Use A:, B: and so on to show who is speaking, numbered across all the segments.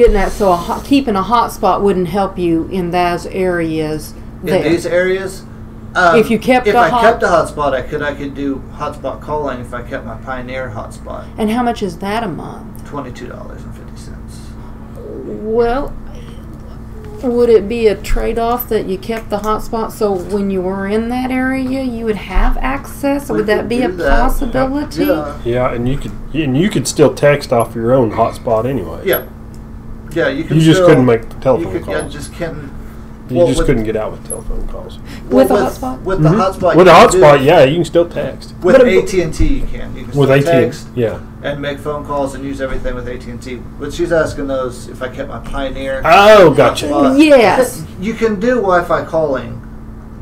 A: getting at, so a hot, keeping a hotspot wouldn't help you in those areas
B: in
A: there.
B: these areas. Um,
A: If you kept
B: if
A: a
B: I
A: hot-
B: kept a hotspot, I could I could do hotspot calling if I kept my Pioneer hotspot.
A: and how much is that a month?
B: Twenty two dollars and fifty cents.
A: Well, would it be a trade off that you kept the hotspot so when you were in that area you would have access? would that be a possibility?
B: Yeah.
C: Yeah, and you could and you could still text off your own hotspot anyway.
B: yeah, yeah. You, could
C: You just
B: still-
C: couldn't make the
B: You
C: telephone
B: could, yeah,
C: calls.
B: just couldn't.
C: You
B: well,
C: just
B: with-
C: couldn't get out with telephone calls.
A: With
B: well,
A: a
B: with,
A: hotspot?
B: With the hotspot,
C: With a
B: you can do-
C: hotspot, yeah, you can still text.
B: With
C: But-
B: AT and T, you can. You can
C: With
B: still
C: AT,
B: text
C: yeah.
B: and make phone calls and use everything with AT and T. But she's asking those if I kept my Pioneer.
C: Oh, gotcha.
B: hotspot.
A: Yes.
B: you can do Wi-Fi calling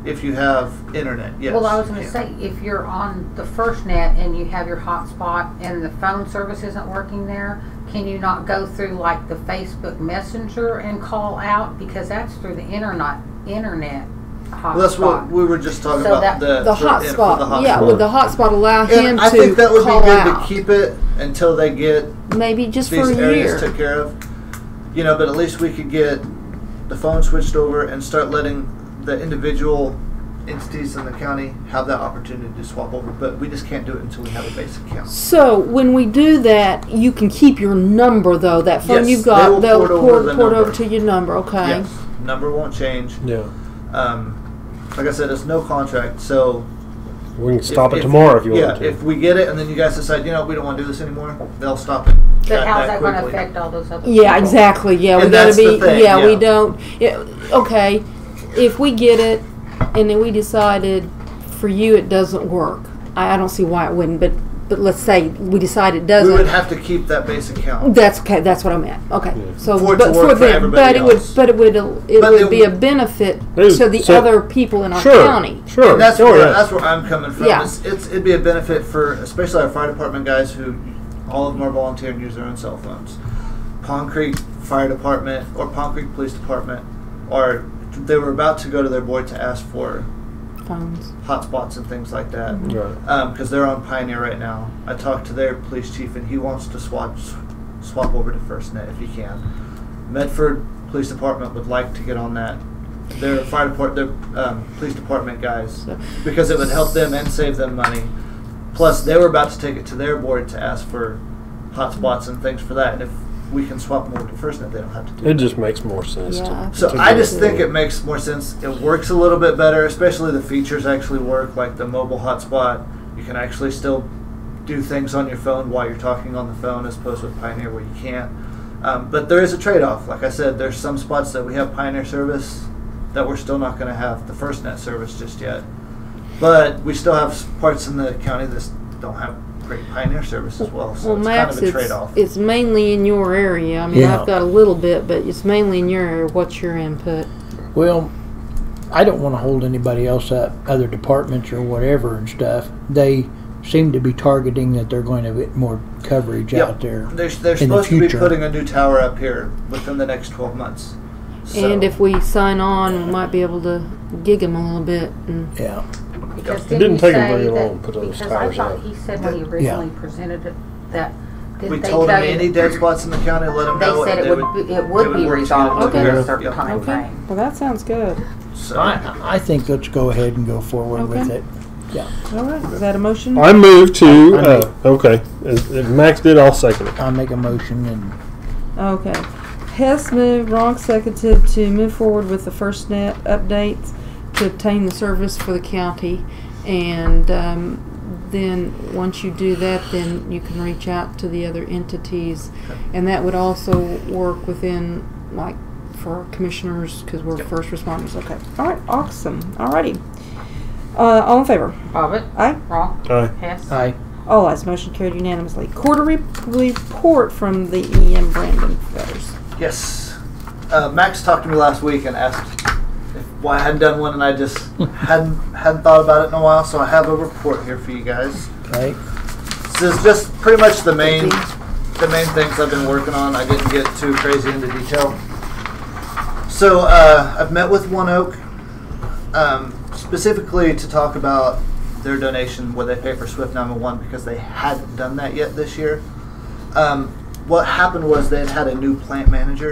B: if you have internet. Yes.
D: Well, I was going
B: Yeah.
D: to say, if you're on the first net and you have your hotspot and the phone service isn't working there, can you not go through like the Facebook Messenger and call out because that's through the internet internet hotspot?
B: Well, that's what we were just talking
D: So
B: about
D: that-
B: the
A: The
B: for- yeah, for
A: hotspot,
B: the
A: yeah.
B: hotspot.
A: Would the hotspot allow him
B: And
A: to
B: I think that would be
A: call
B: good
A: out?
B: to keep it until they get
A: maybe just for
B: these
A: a
B: areas
A: year.
B: took care of. You know, but at least we could get the phone switched over and start letting the individual entities in the county have that opportunity to swap over. But we just can't do it until we have a basic account.
A: So when we do that, you can keep your number though. That phone
B: Yes,
A: you've
B: they
A: got,
B: will
A: they'll
B: port over
A: port,
B: the
A: port over
B: number.
A: to your number. Okay.
B: Yes, number won't change.
C: Yeah.
B: Um, like I said, it's no contract, so
C: We can stop it tomorrow if you
B: yeah,
C: want
B: if
C: to.
B: we get it and then you guys decide, you know, we don't want to do this anymore, they'll stop it.
D: But how's that going to
B: quickly.
D: affect all those other?
A: Yeah,
D: people?
A: exactly. Yeah, we
B: And
A: gotta
B: that's the
A: be.
B: thing,
A: yeah, we
B: yeah.
A: don't. It, okay, if we get it, and then we decided for you it doesn't work. I, I don't see why it wouldn't, but but let's say we decide it
B: We would
A: doesn't.
B: have to keep that base account.
A: That's okay. That's what I meant. Okay, so
B: For it to
A: but
B: work for
A: them- but
B: everybody
A: it would
B: else.
A: but it would it
B: But
A: would
B: it
A: be a
B: would-
A: benefit
C: Dude,
A: to the
C: so-
A: other people in our
C: Sure.
A: county.
C: Sure.
B: And that's
C: oh,
B: where
C: yeah.
B: that's where I'm coming from.
A: Yeah.
B: It's, it's it'd be a benefit for especially our fire department guys who all of them are volunteer and use their own cell phones. Pond Creek Fire Department or Pond Creek Police Department are they were about to go to their board to ask for
A: Phones.
B: hotspots and things like that.
C: Right.
B: because they're on Pioneer right now. I talked to their police chief, and he wants to swap swap over to FirstNet if he can. Medford Police Department would like to get on that. Their fire depart, their um, police department guys, because it would help them and save them money. Plus, they were about to take it to their board to ask for hotspots and things for that. And if we can swap them over to FirstNet, they don't have to do
C: It just makes more sense.
A: Yeah.
C: To,
B: so
C: to
B: I
C: do
B: just think it makes more sense. It works a little bit better, especially the features actually work, like the mobile hotspot. You can actually still do things on your phone while you're talking on the phone, as opposed with Pioneer where you can't. Um, but there is a trade-off. Like I said, there's some spots that we have Pioneer service that we're still not going to have the FirstNet service just yet. But we still have s- parts in the county that don't have great Pioneer service as well. So
A: Well,
B: it's
A: Max,
B: kind of a
A: it's,
B: trade-off.
A: it's mainly in your area. I mean,
E: Yeah.
A: I've got a little bit, but it's mainly in your area. What's your input?
E: Well, I don't want to hold anybody else up, other departments or whatever and stuff. They seem to be targeting that they're going to get more coverage
B: Yep.
E: out there.
B: They're, they're
E: in the
B: supposed to be
E: future.
B: putting a new tower up here within the next 12 months. So,
A: And if we sign on, we might be able to gig them a little bit. And
E: Yeah.
D: Because
C: It
D: didn't
C: didn't take
D: he
C: him
D: say
C: very
D: that-
C: long to put those tires
D: Because I
C: out.
D: thought he said when he originally presented it that. didn't
B: we
D: they
B: told them
D: tell you-
B: any dead spots in the county, let them know.
D: They said
B: and
D: it
B: they
D: would, be- it would be
B: work
D: resolved
B: together.
D: within
A: Okay.
D: a certain
B: Yep.
D: time frame.
A: well, that sounds good.
B: So,
E: I, I think let's go ahead and go forward with
A: Okay.
E: it.
A: All right, is that a motion?
C: I move to.
E: I
C: Uh, okay. If if Max did, I'll second it.
E: I'll make a motion and
A: Okay. Hess moved, Ronk seconded to move forward with the first net updates to obtain the service for the county. And um, then, once you do that, then you can reach out to the other entities. And that would also work within, like, for commissioners, because we're first responders. Okay. All right, awesome. All righty. Uh, all in favor?
D: Bobbit,
A: Aye.
D: wrong,
C: Aye.
D: Hess.
E: I
A: All eyes motion carried unanimously. Quarterly report from the EM Brandon Feathers.
B: yes. Uh, Max talked to me last week and asked if, why I hadn't done one, and I just hadn't hadn't thought about it in a while. So I have a report here for you guys.
E: right?
B: This is just pretty much the main the main things I've been working on. I didn't get too crazy into detail. So uh, I've met with One Oak um, specifically to talk about their donation where they pay for Swift 911 because they hadn't done that yet this year. Um, what happened was they had had a new plant manager